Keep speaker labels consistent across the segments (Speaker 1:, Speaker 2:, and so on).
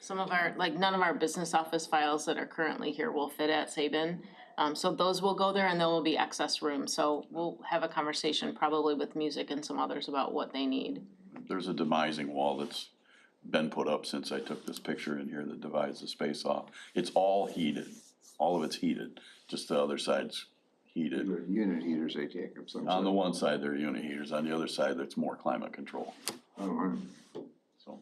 Speaker 1: some of our, like, none of our business office files that are currently here will fit at Saban. Um, so those will go there and there will be excess room, so we'll have a conversation probably with music and some others about what they need.
Speaker 2: There's a demising wall that's been put up since I took this picture in here that divides the space off. It's all heated, all of it's heated, just the other side's heated.
Speaker 3: They're Unit heaters they take of some
Speaker 2: On the
Speaker 3: sort.
Speaker 2: one side, they're unit heaters, on the other side, that's more climate control,
Speaker 3: Oh, all right.
Speaker 2: so.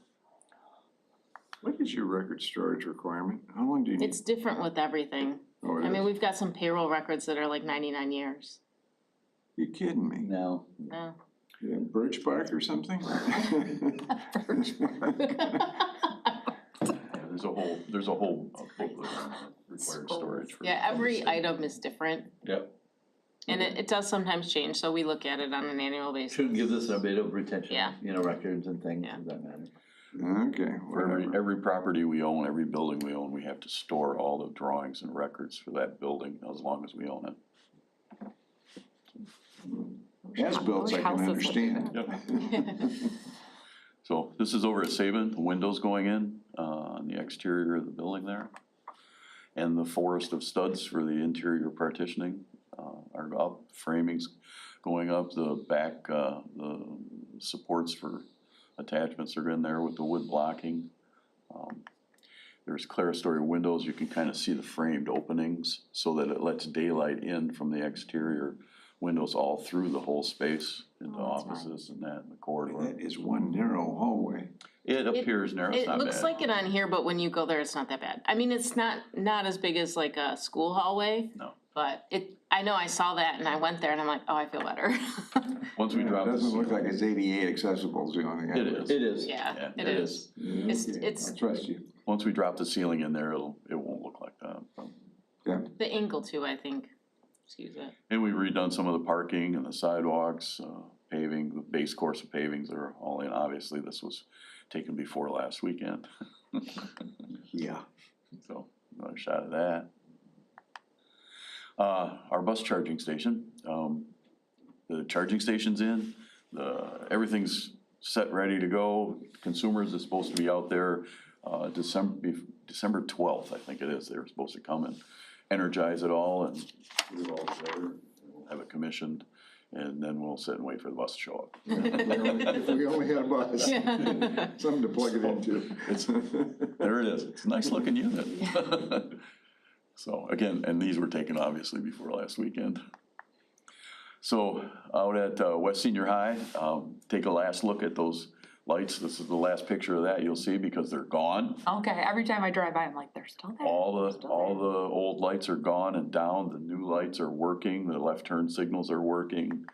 Speaker 3: What is your record storage requirement? How long do you need?
Speaker 1: It's different with everything.
Speaker 3: Oh, it
Speaker 1: I mean,
Speaker 3: is.
Speaker 1: we've got some payroll records that are like ninety-nine years.
Speaker 3: You kidding me?
Speaker 2: No.
Speaker 1: No.
Speaker 3: Yeah, Birch bark or something?
Speaker 2: There's a whole, there's a whole uh, booklet on required storage. for-
Speaker 1: Yeah, every item is different
Speaker 4: Yep,
Speaker 1: and it, it does sometimes change, so we look at it on an annual basis.
Speaker 4: shouldn't give this a bit of retention,
Speaker 1: Yeah.
Speaker 4: you know, records and things
Speaker 1: Yeah.
Speaker 4: of that matter.
Speaker 3: Okay,
Speaker 2: For every,
Speaker 3: whatever.
Speaker 2: every property we own, every building we own, we have to store all the drawings and records for that building as long as we own it.
Speaker 3: As-bills I can
Speaker 5: Houses look
Speaker 3: understand.
Speaker 2: So this is over at Saban, the windows going in, uh, on the exterior of the building there. And the forest of studs for the interior partitioning, uh, are up, framings going up, the back, uh, the supports for attachments are in there with the wood blocking. Um, There's clerestory windows, you can kind of see the framed openings, so that it lets daylight in from the exterior windows all through the whole space, into
Speaker 1: Oh, that's nice.
Speaker 2: offices and that, and the
Speaker 3: And
Speaker 2: corridor.
Speaker 3: That is one narrow hallway.
Speaker 2: It appears narrow, it's
Speaker 1: It
Speaker 2: not
Speaker 1: looks
Speaker 2: bad.
Speaker 1: like it on here, but when you go there, it's not that bad. I mean, it's not, not as big as like a school hallway.
Speaker 2: No.
Speaker 1: But it, I know I saw that and I went there and I'm like, oh, I feel better.
Speaker 2: Once we
Speaker 3: It
Speaker 2: drop this.
Speaker 3: doesn't look like it's ADA accessible is the only thing. I
Speaker 2: It
Speaker 3: would-
Speaker 2: is.
Speaker 4: It is.
Speaker 1: Yeah,
Speaker 2: Yeah,
Speaker 1: it
Speaker 2: it
Speaker 1: is.
Speaker 3: Yeah,
Speaker 1: It's-
Speaker 3: okay,
Speaker 1: it's-
Speaker 3: I trust you.
Speaker 2: Once we drop the ceiling in there, it'll, it won't look like that. so.
Speaker 1: The angle too, I think. Excuse it.
Speaker 2: And we've redone some of the parking and the sidewalks, uh, paving, the base course of pavings are all in. Obviously, this was taken before last weekend,
Speaker 3: Yeah.
Speaker 2: so another shot of that. Uh, our bus charging station, um, the charging station's in, the, everything's set, ready to go. Consumers is supposed to be out there, uh, December, December twelfth, I think it is, they're supposed to come and energize it all and
Speaker 3: We're all there.
Speaker 2: have it commissioned, and then we'll sit and wait for the bus to show up.
Speaker 3: If we only had a bus, something to plug it into.
Speaker 2: There it is, it's a nice looking unit. So, again, and these were taken obviously before last weekend. So, out at uh, West Senior High, um, take a last look at those lights, this is the last picture of that you'll see because they're gone.
Speaker 5: Okay, every time I drive by, I'm like, they're still there.
Speaker 2: All the, all the old lights are gone and down, the new lights are working, the left turn signals are working.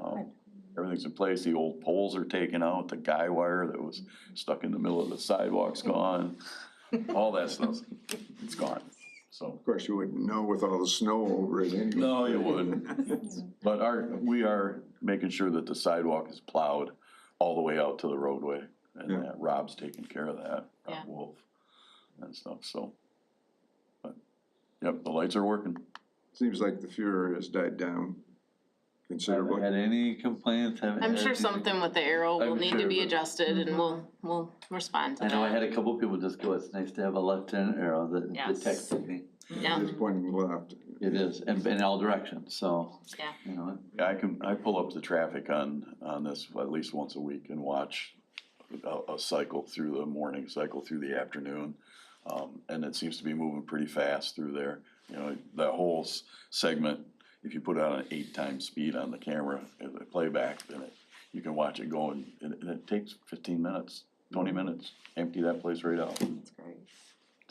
Speaker 2: Um, Everything's in place, the old poles are taken out, the guy wire that was stuck in the middle of the sidewalk's gone. All that stuff, it's gone, so.
Speaker 3: Of course, you wouldn't know with all the snow over it anyway.
Speaker 2: No, you wouldn't. But our, we are making sure that the sidewalk is plowed all the way out to the roadway. And
Speaker 3: Yeah.
Speaker 2: that Rob's taking care of that,
Speaker 1: Yeah.
Speaker 2: Rob Wolf and stuff, so. But, yep, the lights are working.
Speaker 3: Seems like the furor has died down
Speaker 4: Haven't
Speaker 3: considerably.
Speaker 4: had any complaints, haven't.
Speaker 1: I'm
Speaker 4: had
Speaker 1: sure
Speaker 4: anything.
Speaker 1: something with the arrow will
Speaker 4: I'm
Speaker 1: need to
Speaker 4: sure,
Speaker 1: be
Speaker 4: but- Mm-hmm.
Speaker 1: adjusted and we'll, we'll respond to
Speaker 4: I
Speaker 1: that.
Speaker 4: know I had a couple people just go, it's nice to have a left turn arrow that
Speaker 1: Yes.
Speaker 4: detects me.
Speaker 1: Yeah,
Speaker 3: Just pointing left.
Speaker 4: It is, and in all directions, so,
Speaker 1: yeah.
Speaker 4: you know,
Speaker 2: Yeah, I can, I pull up the traffic on, on this at least once a week and watch a, a cycle through the morning, cycle through the afternoon. Um, and it seems to be moving pretty fast through there, you know, that whole s- segment, if you put out an eight times speed on the camera, at the playback, then it, you can watch it going, and, and it takes fifteen minutes, twenty minutes, empty that place right out.
Speaker 5: That's great.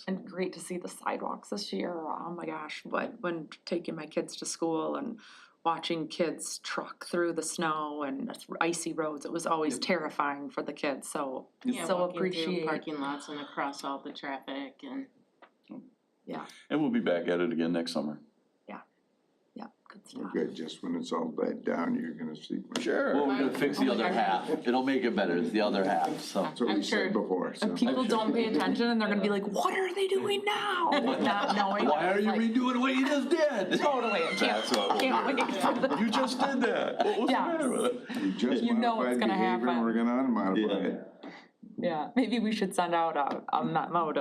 Speaker 5: And great to see the sidewalks this year. Oh my gosh, but when taking my kids to school and watching kids truck through the snow and icy roads, it was always terrifying for the kids, so.
Speaker 1: Yeah,
Speaker 5: So
Speaker 1: walking through
Speaker 5: appreciate-
Speaker 1: Parking lots and across all the traffic and.
Speaker 2: And we'll be back at it again next summer.
Speaker 5: Yeah, good stuff.
Speaker 3: Okay, just when it's all died down, you're gonna see.
Speaker 2: Sure.
Speaker 4: well, we're gonna fix
Speaker 1: Oh
Speaker 4: the other half, it'll make it better, it's the other half, so.
Speaker 3: That's what
Speaker 1: I'm
Speaker 3: we
Speaker 1: sure-
Speaker 3: said before, so.
Speaker 5: People don't pay attention and they're gonna be like, what are they doing now? Not knowing.
Speaker 4: Why
Speaker 5: that
Speaker 4: are
Speaker 5: it's
Speaker 4: you
Speaker 5: like,
Speaker 4: redoing what you just did?
Speaker 5: Totally, I can't,
Speaker 2: That's what, we'll
Speaker 5: can't wait for
Speaker 2: do.
Speaker 5: the-
Speaker 2: you just did that, what was the
Speaker 5: Yeah.
Speaker 2: matter with it?
Speaker 3: We just
Speaker 5: You know what's
Speaker 3: modified
Speaker 5: gonna
Speaker 3: behavior and
Speaker 5: happen.
Speaker 3: We're gonna unmodify it.
Speaker 5: Yeah, maybe we should send out a, a memo to